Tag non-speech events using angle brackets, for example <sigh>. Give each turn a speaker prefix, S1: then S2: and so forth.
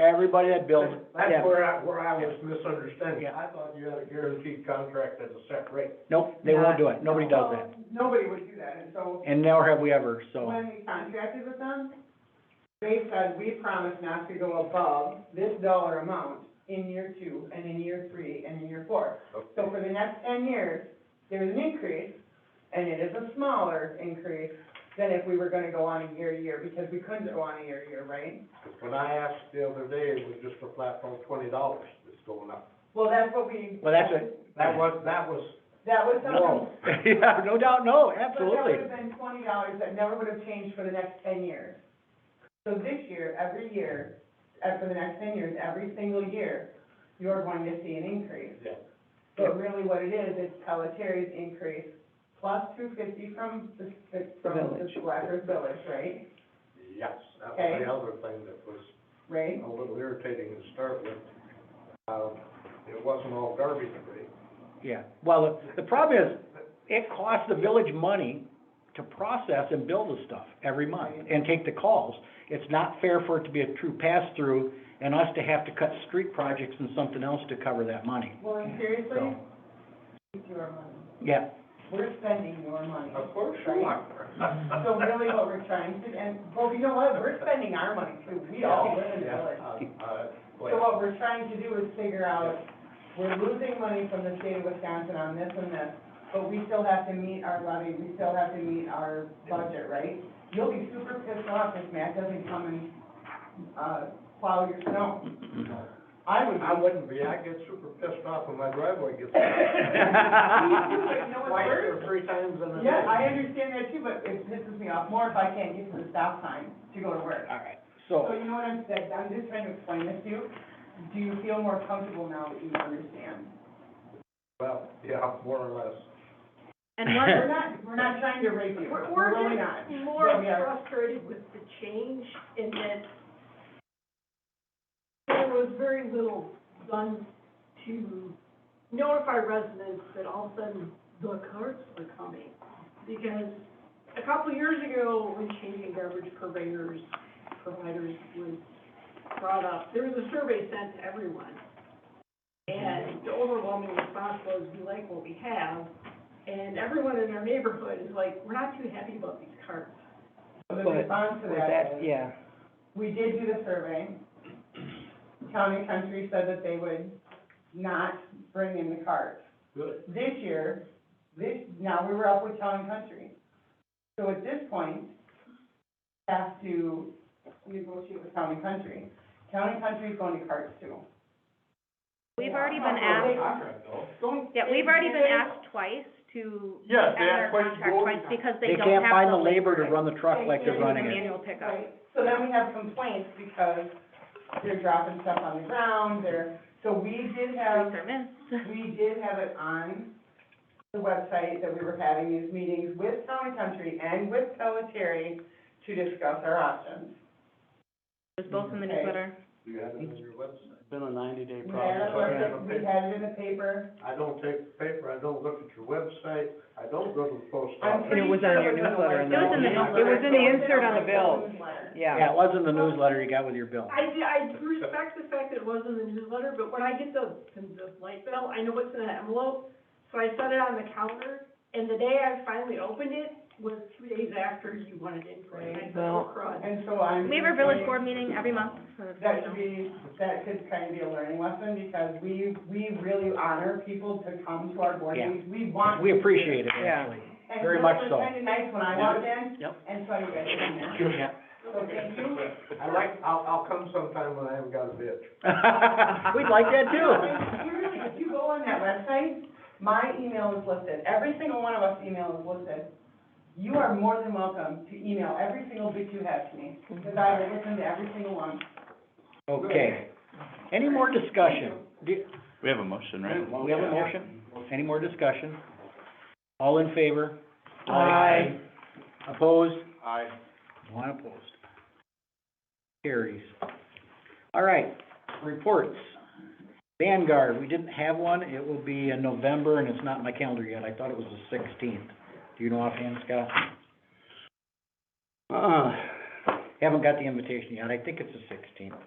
S1: everybody that builds,
S2: That's
S1: yeah.
S2: where I, where I was misunderstanding. I thought you had a guaranteed contract at a set rate.
S1: Nope, they won't do it, nobody does that,
S3: Well, Nobody would do that, and so
S1: and nor have we ever, so,
S3: when we contracted with them, they said, we promise not to go above this dollar amount in year two, and in year three, and in year four. So for the next ten years, there's an increase, and it is a smaller increase than if we were gonna go on a year to year, because we couldn't go on a year to year, right?
S2: When I asked the other day, it was just a flat phone, twenty dollars that's going up.
S3: Well, that's what we.
S1: well, that's it.
S2: That was, that was,
S3: That was
S2: <laughs>
S3: something.
S2: no,
S1: Yeah, no doubt, no,
S3: But that
S1: absolutely,
S3: would have been twenty dollars that never would have changed for the next ten years. So this year, every year, uh, for the next ten years, every single year, you're going to see an increase.
S2: Yeah.
S3: But really what it is, it's Pelletari's increase plus two fifty from the, the- from the
S4: village.
S3: Schwackers Village, right?
S2: yes, that was
S3: Okay.
S2: the other thing that was
S3: Right?
S2: a little irritating to start with. Uh, it wasn't all garbage rate.
S1: yeah. Well, the, the problem is, it costs the village money to process and build the stuff every month and take the calls. It's not fair for it to be a true pass-through and us to have to cut street projects and something else to cover that money,
S3: Well, and seriously,
S1: so,
S3: it's your money.
S1: yeah.
S3: We're spending your money.
S2: Of course
S3: right?
S2: you are. <laughs>
S3: So really what we're trying to, and, well, you know what, we're spending our money too, we all live in the
S2: Yeah,
S3: village.
S2: uh, uh,
S3: So
S2: well,
S3: what we're trying to do is figure out, we're losing money from the state of Wisconsin on this and this, but we still have to meet our levy, we still have to meet our budget, right? You'll be super pissed off if Matt doesn't come and, uh, plow your snow. <laughs> I would.
S2: I wouldn't be, I'd get super pissed off when my driveway <laughs> gets.
S3: You know what's
S2: Twice
S3: worse?
S2: or three times in a day.
S3: Yeah, I understand that too, but it pisses me off more if I can't get to the stop sign to go to work.
S1: All right,
S3: So
S1: so,
S3: you know what I'm saying, I'm just trying to explain this to you. Do you feel more comfortable now that you understand?
S2: Well, yeah, more or less.
S4: And one,
S3: We're not, we're not trying to rape you,
S5: We're,
S3: we're really not.
S5: just more
S3: But we are-
S5: frustrated with the change in that there was very little done to notify residents that all of a sudden the carts were coming. Because a couple of years ago, when changing garbage purveyors, providers was brought up, there was a survey sent to everyone. And the overwhelming response was, we like what we have, and everyone in our neighborhood is like, we're not too happy about these carts.
S3: So the
S4: But-
S3: response to
S4: with
S3: that
S4: that,
S3: is,
S4: yeah,
S3: we did do the survey. Town and Country said that they would not bring in the carts.
S2: Good.
S3: This year, this, now we were up with Town and Country. So at this point, have to negotiate with Town and Country. Town and Country's going to carts too.
S6: We've already been asked,
S3: Don't-
S6: yeah, we've already been asked twice to
S2: Yes,
S6: end our contract twice because
S1: they
S6: they don't
S1: can't
S6: have
S1: find
S6: the
S1: the labor
S6: labor.
S1: to run the truck like they're
S3: They can't
S1: running
S3: even
S1: it.
S6: Manual pickup.
S3: Right, so then we have complaints because they're dropping stuff on the ground, they're, so we did have,
S1: <laughs>
S3: we did have it on the website that we were having these meetings with Town and Country and with Pelletary to discuss our options.
S6: It was both in the
S3: Okay.
S6: newsletter.
S2: Do you have it on your website?
S7: Been a ninety-day
S3: We had it,
S7: process.
S3: on the- we had it in the paper,
S2: I don't take the paper, I don't look at your website, I don't go to the post office.
S3: I'm
S4: And
S3: pretty
S4: it
S3: sure
S4: was
S3: it
S4: on your
S3: was in the website.
S6: It was in the
S4: newsletter and
S3: It
S6: newsletter.
S3: was in the insert on the bill.
S1: Yeah,
S4: yeah.
S1: it was in the newsletter you got with your bill.
S5: I, do- I respect the fact that it was in the newsletter, but when I get the, the light bill, I know what's in that envelope. So I set it on the counter, and the day I finally opened it was two days after you wanted input, and I said, oh crud.
S3: And so I'm.
S6: We have our village board meeting every month, so it's,
S3: That
S6: you know.
S3: should be, that could kind of be a learning lesson, because we, we really honor people to come to our board
S1: Yeah.
S3: meetings. We want.
S1: We appreciate it,
S4: Yeah.
S1: actually. very much
S3: And
S1: so.
S3: Bill was kind of nice when I walked in.
S1: Yep.
S3: And so you guys in there.
S1: Yeah.
S3: So thank you.
S2: I like, I'll, I'll come sometime when I haven't got a bitch.
S1: <laughs> We'd like that too.
S3: <laughs> You really, if you go on that website, my email is listed, every single one of us email is listed. You are more than welcome to email every single bit you have to me, because I will listen to every single one.
S1: Okay. Any more discussion? Do-
S7: We have a motion,
S1: We have a motion? Any more discussion? All in favor?
S4: Aye.
S1: Opposed?
S2: Aye.
S1: One opposed. Carries. All right, reports. Vanguard, we didn't have one. It will be in November and it's not in my calendar yet. I thought it was the sixteenth. Do you know offhand, Scott?
S7: Uh,
S1: Haven't got the invitation yet. I think it's the sixteenth.